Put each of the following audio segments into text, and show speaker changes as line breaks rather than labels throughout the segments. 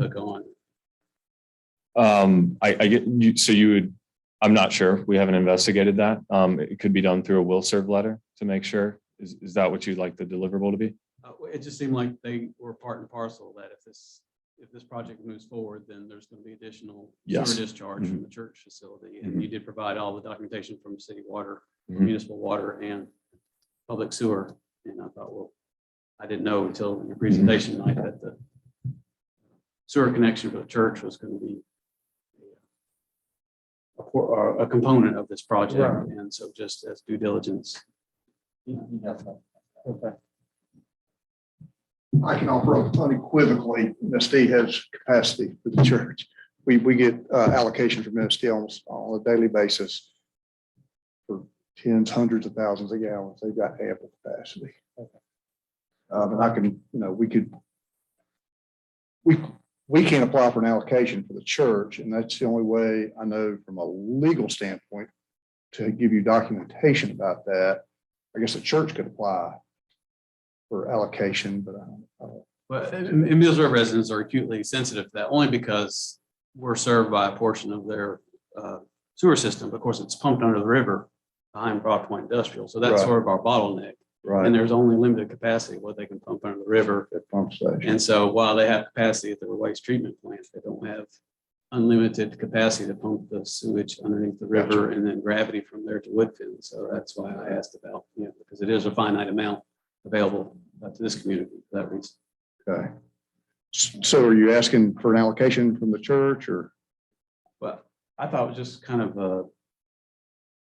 hook on.
Um, I, I get you, so you would, I'm not sure. We haven't investigated that. Um, it could be done through a will serve letter to make sure. Is, is that what you'd like the deliverable to be?
Uh, It just seemed like they were part and parcel that if this, if this project moves forward, then there's going to be additional sewer
Yes.
discharge from the church facility. And you did provide all the documentation from city water,
Mhm.
municipal water and public sewer. And I thought, well, I didn't know until your presentation tonight that the sewer connection for the church was going to be a, por- or a component of this project.
Right.
And so just as due diligence,
Okay.
I can offer up unequivocally, MSD has capacity for the church. We, we get uh, allocations from MSD on, on a daily basis for tens, hundreds of thousands of gallons. They've got ample capacity. Um, and I can, you know, we could, we, we can apply for an allocation for the church, and that's the only way I know from a legal standpoint to give you documentation about that. I guess the church could apply for allocation, but I don't, I don't
But and and Mills River residents are acutely sensitive to that only because we're served by a portion of their uh, sewer system. Of course, it's pumped under the river behind Broad Point Industrial. So that's
Right.
sort of our bottleneck. And
Right.
there's only limited capacity what they can pump under the river.
At pump station.
And so while they have capacity at the waste treatment plant, they don't have unlimited capacity to pump the sewage underneath the river and then gravity from there to Woodfin. So that's why I asked about, you know, because it is a finite amount available uh, to this community for that reason.
Okay. S- So are you asking for an allocation from the church or?
But I thought it was just kind of a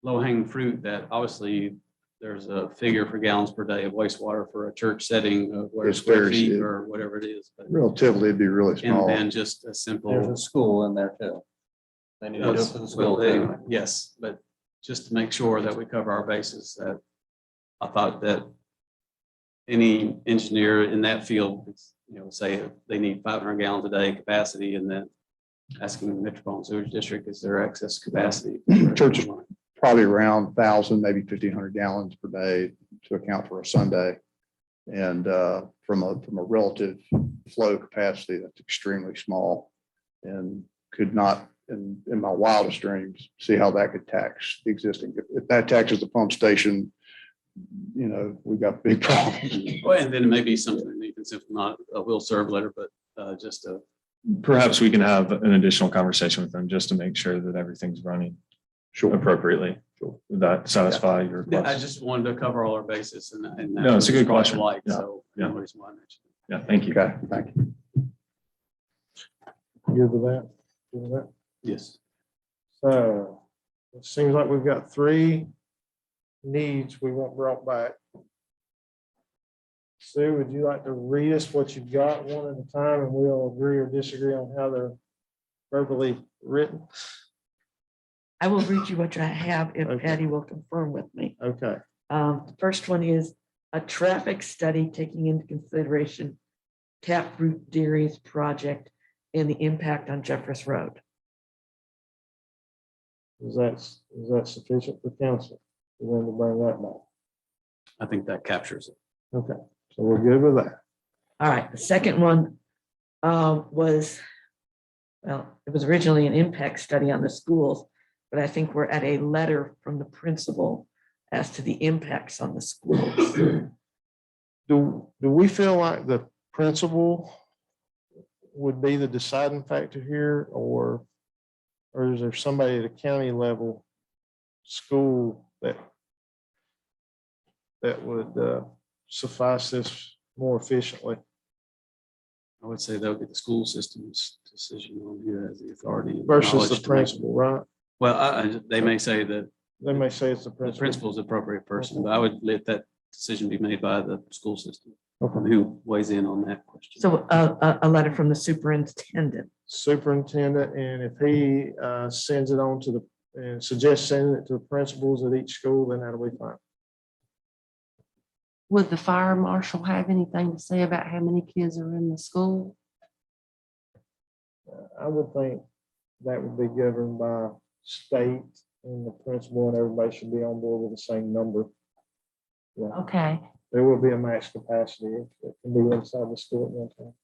low hanging fruit that obviously there's a figure for gallons per day of wastewater for a church setting of where
It's
square
very
feet
few.
or whatever it is. but-
Relatively, it'd be really
And
small.
then just a
There's
simple.
a school in there too. They need to do it for the school
Well, anyway,
too.
Yes, but just to make sure that we cover our bases, that I thought that any engineer in that field, you know, say they need five hundred gallons a day capacity and then asking the Metropolitan Sewage District, is there excess capacity?
Church is- Probably around thousand, maybe fifteen hundred gallons per day to account for a Sunday. And uh, from a, from a relative flow capacity, that's extremely small. And could not, in, in my wildest dreams, see how that could tax the existing. If- If that taxes the pump station, you know, we've got big problems.
Well, and then it may be something that you can simply not, a will serve letter, but uh, just a,
Perhaps we can have an additional conversation with them just to make sure that everything's running
Sure.
appropriately. Would that satisfy your
I
request?
just wanted to cover all our bases and. and
No, it's a good question.
Light,
Yeah,
so.
yeah.
no reason why I mentioned it.
Yeah, thank you.
Okay, thank you.
Good with that? Good with that?
Yes.
So it seems like we've got three needs we want brought back. Sue, would you like to read us what you've got one at a time and we'll agree or disagree on how they're verbally written?
I will read you what I have if
Okay.
Patty will confirm with me.
Okay,
Um, the first one is a traffic study taking into consideration Taproot Dairies project and the impact on Jeffress Road.
is that, is that sufficient for council? We're going to bring that back.
I think that captures it.
Okay, so we're good with that.
All right, the second one um, was, well, it was originally an impact study on the schools, but I think we're at a letter from the principal as to the impacts on the schools.
Do, do we feel like the principal would be the deciding factor here or, or is there somebody at a county level school that that would uh, suffice this more efficiently?
I would say that would be the school system's decision on who has the authority. and
versus
knowledge
the
to make-
principal, right?
Well, I- I- they may say that
They may say it's the
the
principal.
principal's the appropriate person, but I would let that decision be made by the school system.
Okay.
Who weighs in on that question?
So uh, a, a, a letter from the superintendent.
Superintendent, and if he uh, sends it on to the, and suggests sending it to the principals at each school, then that'll be fine.
Would the fire marshal have anything to say about how many kids are in the school?
I would think that would be governed by state and the principal and everybody should be on board with the same number.
Okay,
There will be a max capacity that can be inside the school at one time.